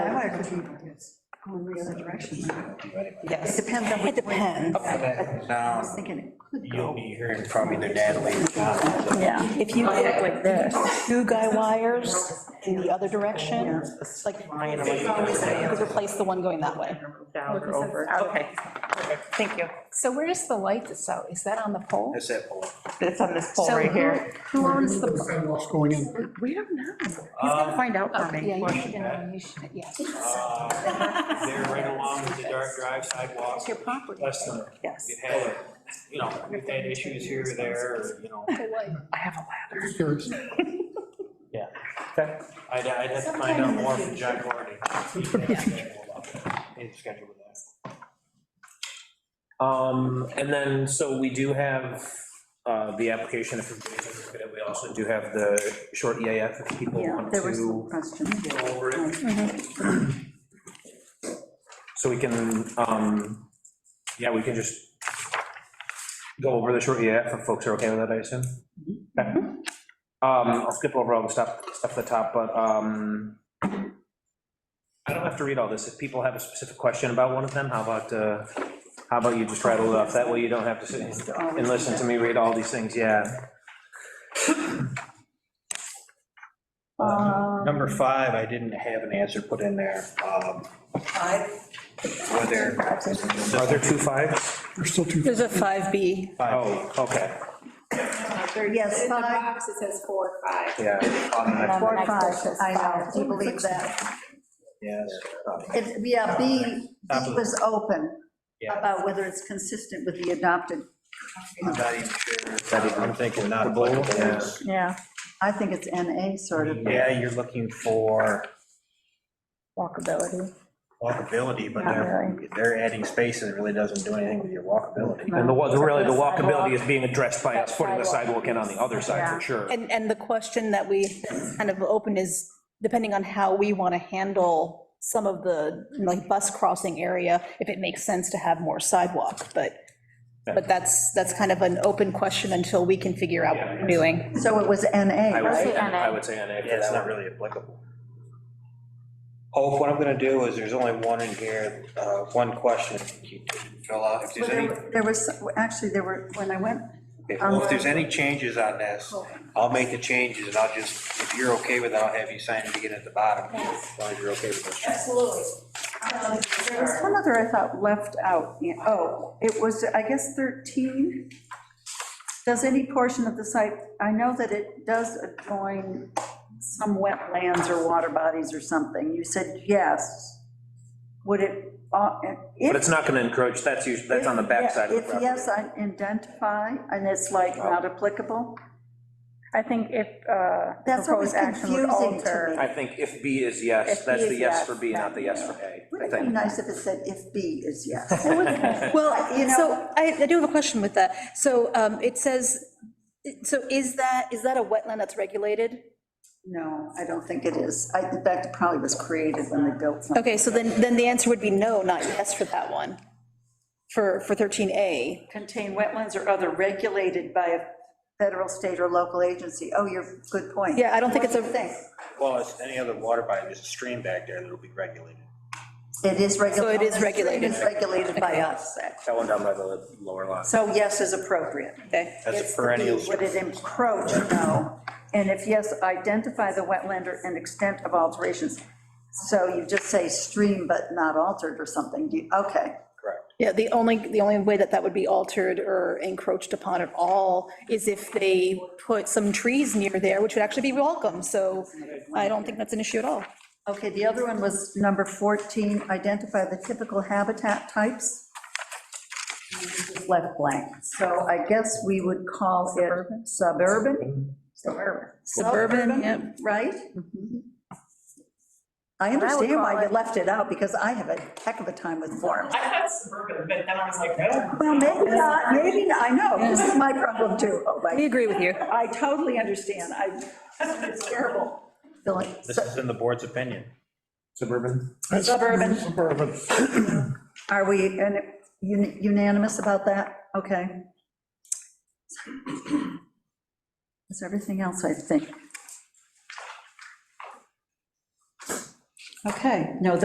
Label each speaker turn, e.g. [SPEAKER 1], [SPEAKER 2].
[SPEAKER 1] that could be going the other direction. It
[SPEAKER 2] Yes,
[SPEAKER 1] depends on
[SPEAKER 2] it
[SPEAKER 1] which way.
[SPEAKER 2] depends.
[SPEAKER 1] I
[SPEAKER 3] Now,
[SPEAKER 1] was thinking it could
[SPEAKER 3] you'll
[SPEAKER 1] go.
[SPEAKER 3] be hearing from either Natalie or John.
[SPEAKER 2] Yeah, if you get
[SPEAKER 4] like this.
[SPEAKER 2] two guy wires in the other direction, it's like, you replace the one going that way.
[SPEAKER 4] Down or over, okay. Thank you.
[SPEAKER 5] So where is the light that's out? Is that on the pole?
[SPEAKER 3] That's that pole.
[SPEAKER 4] It's on this pole
[SPEAKER 5] So
[SPEAKER 4] right
[SPEAKER 5] who-
[SPEAKER 4] here.
[SPEAKER 5] Who owns the? pole?
[SPEAKER 6] Sidewalks going in.
[SPEAKER 1] We don't know.
[SPEAKER 4] He's gonna find out for
[SPEAKER 5] Yeah,
[SPEAKER 4] me.
[SPEAKER 5] you
[SPEAKER 3] question,
[SPEAKER 5] should know, you should, yeah.
[SPEAKER 3] Uh, They're right along with the dark drive sidewalk.
[SPEAKER 1] It's your property.
[SPEAKER 3] Less than,
[SPEAKER 1] Yes.
[SPEAKER 3] it had, you know, we've had issues here or there, or, you know.
[SPEAKER 5] The light.
[SPEAKER 1] I have a ladder.
[SPEAKER 6] There's-
[SPEAKER 3] I'd, I'd have to find out more from John Gordy. He's got a schedule about that. He has a schedule with that.
[SPEAKER 7] Um, and then, so we do have, uh, the application of information, but we also do have the short EAF if people
[SPEAKER 1] Yeah,
[SPEAKER 7] want
[SPEAKER 1] there was some
[SPEAKER 7] to
[SPEAKER 1] question.
[SPEAKER 7] go over it. So we can, um, yeah, we can just go over the short EAF if folks are okay with that, I assume? Okay. Um, I'll skip over all the stuff, stuff at the top, but, um, I don't have to read all this. If people have a specific question about one of them, how about, uh, how about you just rattle it off? That way you don't have to sit and listen to me read all these things, yeah.
[SPEAKER 3] Number five, I didn't have an answer put in there. um, Were there,
[SPEAKER 7] Are there two fives?
[SPEAKER 6] There's still two.
[SPEAKER 2] There's a 5B.
[SPEAKER 7] Oh, okay,
[SPEAKER 1] Yes,
[SPEAKER 5] In the
[SPEAKER 1] five,
[SPEAKER 5] box, it says four, five.
[SPEAKER 7] yeah.
[SPEAKER 1] four, five, I know, do you believe that?
[SPEAKER 3] yes.
[SPEAKER 1] It, yeah, B, B
[SPEAKER 3] Top of-
[SPEAKER 1] was open
[SPEAKER 3] Yeah.
[SPEAKER 1] about whether it's consistent with the adopted.
[SPEAKER 3] I'm not even sure. I'm thinking not applicable.
[SPEAKER 1] Yeah. I think it's NA sort of.
[SPEAKER 3] Yeah, you're looking for
[SPEAKER 4] Walkability.
[SPEAKER 3] walkability, but they're, they're adding space and it really doesn't do anything with your walkability.
[SPEAKER 7] And the, wa- really, the walkability is being addressed by us putting the sidewalk in on the other side, for sure.
[SPEAKER 2] And, and the question that we kind of opened is, depending on how we want to handle some of the, like, bus crossing area, if it makes sense to have more sidewalk, but, but that's, that's kind of an open question until we can figure out what we're doing.
[SPEAKER 1] So it was NA,
[SPEAKER 7] I would
[SPEAKER 1] right?
[SPEAKER 7] say, I would say NA for
[SPEAKER 3] Yeah, it's
[SPEAKER 7] that
[SPEAKER 3] not
[SPEAKER 7] one.
[SPEAKER 3] really applicable. Hope, what I'm gonna do is, there's only one in here, uh, one question you didn't fill out. If there's
[SPEAKER 1] Well,
[SPEAKER 3] any,
[SPEAKER 1] There there was, actually, there were, when I went,
[SPEAKER 3] okay, well, if there's any changes on this, I'll make the changes and I'll just, if you're okay with it, I'll have you sign it again at the bottom. As long as you're okay with it.
[SPEAKER 4] Absolutely.
[SPEAKER 1] there was one other I thought left out. Yeah, Oh, it was, I guess, 13. Does any portion of the site, I know that it does adjoin some wetlands or water bodies or something. You said yes. Would it, uh, if.
[SPEAKER 7] But it's not gonna encroach, that's usually, that's on the backside of the
[SPEAKER 1] If
[SPEAKER 7] property. Oh.
[SPEAKER 1] yes, I identify, and it's like not applicable,
[SPEAKER 4] I think if uh,
[SPEAKER 1] That's always
[SPEAKER 4] proposed action would
[SPEAKER 1] confusing to
[SPEAKER 4] alter.
[SPEAKER 1] me.
[SPEAKER 7] I think if B is yes,
[SPEAKER 4] If
[SPEAKER 7] that's
[SPEAKER 4] B
[SPEAKER 7] the
[SPEAKER 4] is
[SPEAKER 7] yes
[SPEAKER 4] yes,
[SPEAKER 7] for B, not the yes for A, I
[SPEAKER 1] wouldn't it be
[SPEAKER 7] think.
[SPEAKER 1] nice if it said if B is yes? It would
[SPEAKER 2] Well,
[SPEAKER 1] you know-
[SPEAKER 2] so I, I do have a question with that. So um, it says, so is that, is that a wetland that's regulated?
[SPEAKER 1] No, I don't think it is. I, in fact, it probably was created when they built something.
[SPEAKER 2] Okay, so then, then the answer would be no, not yes for that one, for, for 13A.
[SPEAKER 1] Contain wetlands or other regulated by a federal, state, or local agency. Oh, you're, good point.
[SPEAKER 2] Yeah, I don't think it's a-
[SPEAKER 1] What do you
[SPEAKER 3] Well, it's any other water body, there's a stream back there that'll be regulated.
[SPEAKER 1] It is regulated.
[SPEAKER 2] So it is regulated.
[SPEAKER 1] It is regulated by us.
[SPEAKER 7] That one down by the lower lot.
[SPEAKER 1] So yes is appropriate.
[SPEAKER 2] Okay.
[SPEAKER 3] That's
[SPEAKER 1] It's the
[SPEAKER 3] a perennial.
[SPEAKER 1] B. Would it encroach? No. And if yes, identify the wetland or- and extent of alterations. So you just say stream but not altered or something. You- Okay.
[SPEAKER 3] Correct.
[SPEAKER 2] Yeah, the only, the only way that that would be altered or encroached upon at all is if they put some trees near there, which would actually be welcome, so I don't think that's an issue at all.
[SPEAKER 1] Okay, the other one was number 14, identify the typical habitat types. Left blank, so I guess we would call it suburban? Suburban.
[SPEAKER 2] Suburban, yep.
[SPEAKER 1] Right? I understand why you left it out, because I have a heck of a time with forms.
[SPEAKER 8] I had suburban, but then I was like, no.
[SPEAKER 1] Well, maybe not, maybe, not. I know, this is my problem too. Oh, my-
[SPEAKER 2] We agree with you.
[SPEAKER 1] I totally understand, I, it's terrible. Feeling-
[SPEAKER 3] This is in the board's opinion.
[SPEAKER 7] Suburban?
[SPEAKER 6] That's-
[SPEAKER 1] Suburban.
[SPEAKER 6] Suburban.
[SPEAKER 1] Are we and un- unanimous about that? Okay. That's everything else, I think. Okay, no,